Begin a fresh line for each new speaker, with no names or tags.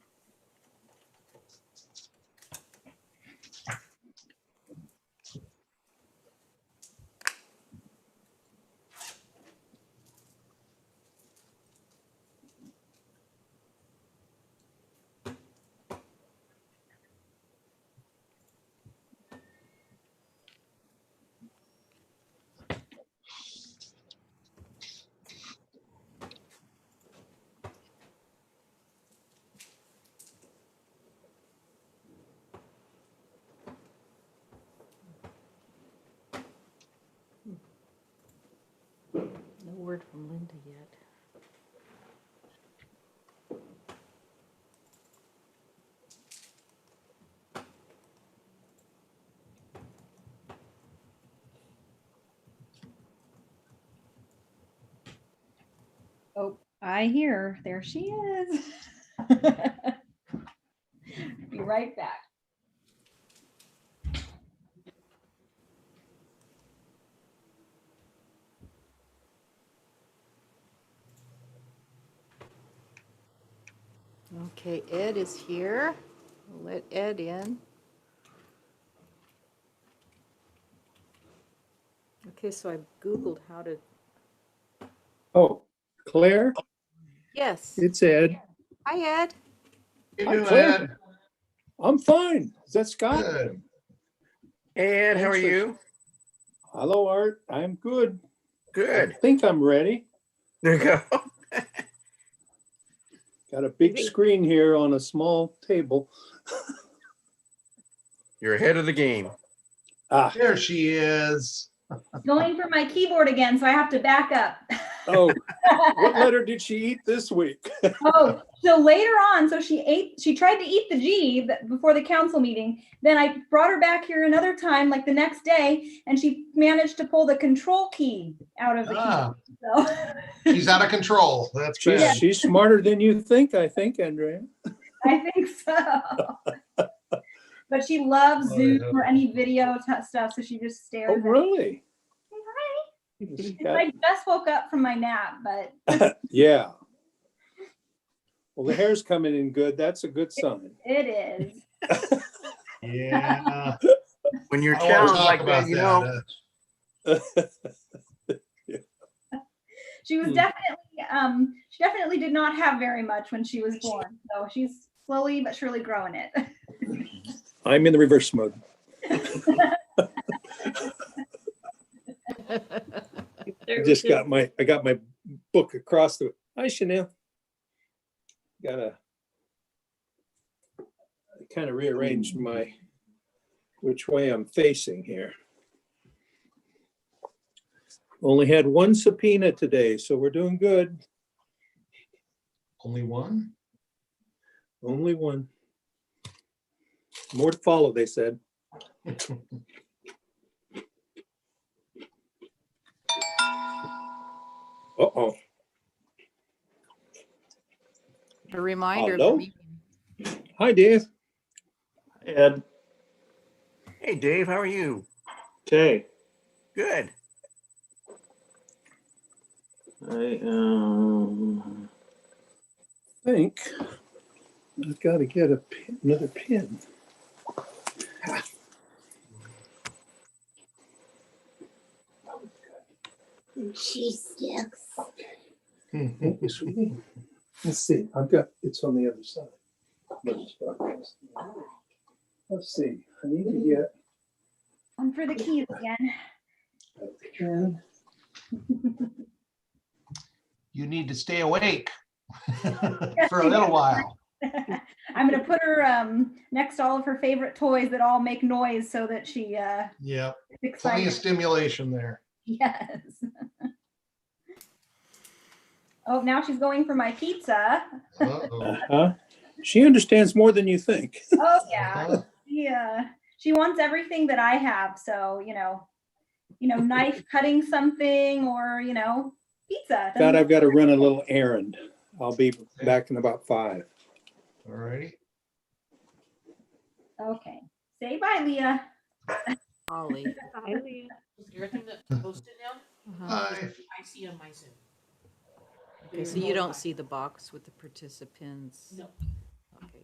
word from Linda yet.
Oh, I hear. There she is. Be right back.
Okay, Ed is here. We'll Let Ed in. Okay, so I Googled how to,
Oh, Claire,
yes.
it's Ed.
Hi, Ed.
Hi,
Hey,
Claire.
Ed.
I'm fine. Is that Scott?
Good.
Hey, Ed, how are
Thanks for-
you?
Hello, Art. I'm good. I
Good.
think I'm ready.
There you go.
Got a big screen here on a small table.
You're ahead of the game.
Ah,
There she is.
Going for my keyboard again, so I have to back up.
oh, what letter did she eat this week?
Oh, so later on, so she ate, she tried to eat the G th- before the council meeting. Then I brought her back here another time, like the next day, and she managed to pull the control key out of the
Ah,
key. So
she's out of control. That's
She's,
bad.
she's smarter than you think, I think, Andrea.
I think so. But she loves
Oh,
Zoom
yeah.
or any video t- stuff, so she just
Oh,
stares. at it.
really?
Say hi.
She's
It's
got-
like, I just woke up from my nap, but
Yeah. Well, the hair's coming in good. That's a good sign.
it is.
Yeah.
When you're
I don't wanna
challenged
talk
like
about
that, you know,
that.
She was
Hmm.
definitely, um, she definitely did not have very much when she was born. So she's slowly but surely growing it.
I'm in the reverse mode. I just got my, I got my book across the, hi Chanel. Got a kind of rearranged
Hmm.
my, which way I'm facing here. Only had one subpoena today, so we're doing good.
Only one?
Only one. More to follow, they said. Uh-oh.
A reminder. of the
Hello?
meeting.
Hi, Dave.
Ed,
hey, Dave, how are you?
okay,
Good.
I, um,
Think I've got to get a pin, another pin.
She sticks.
Let's see, I've got, it's on the other side. Let me start this. Let's see, I need to get
One for the keys again.
a pin.
You need to stay awake for a little while.
I'm gonna put her um next to all of her favorite toys that all make noise so that she uh
Yeah,
is
plenty of
excited.
stimulation there.
Yes. Oh, now she's going for my pizza.
Uh-oh.
Uh-huh. She understands more than you think.
Oh yeah.
Uh-huh.
Yeah. She wants everything that I have, so you know, you know, knife cutting something or you know, pizza.
God,
doesn't-
I've got to run a little errand. I'll be back in about five.
All righty.
Okay. Say bye, Leah.
Ollie.
Everything that's posted now,
Uh-huh.
Uh,
Hi.
I see on my Zoom.
Okay, so you don't see the box with the participants?
No.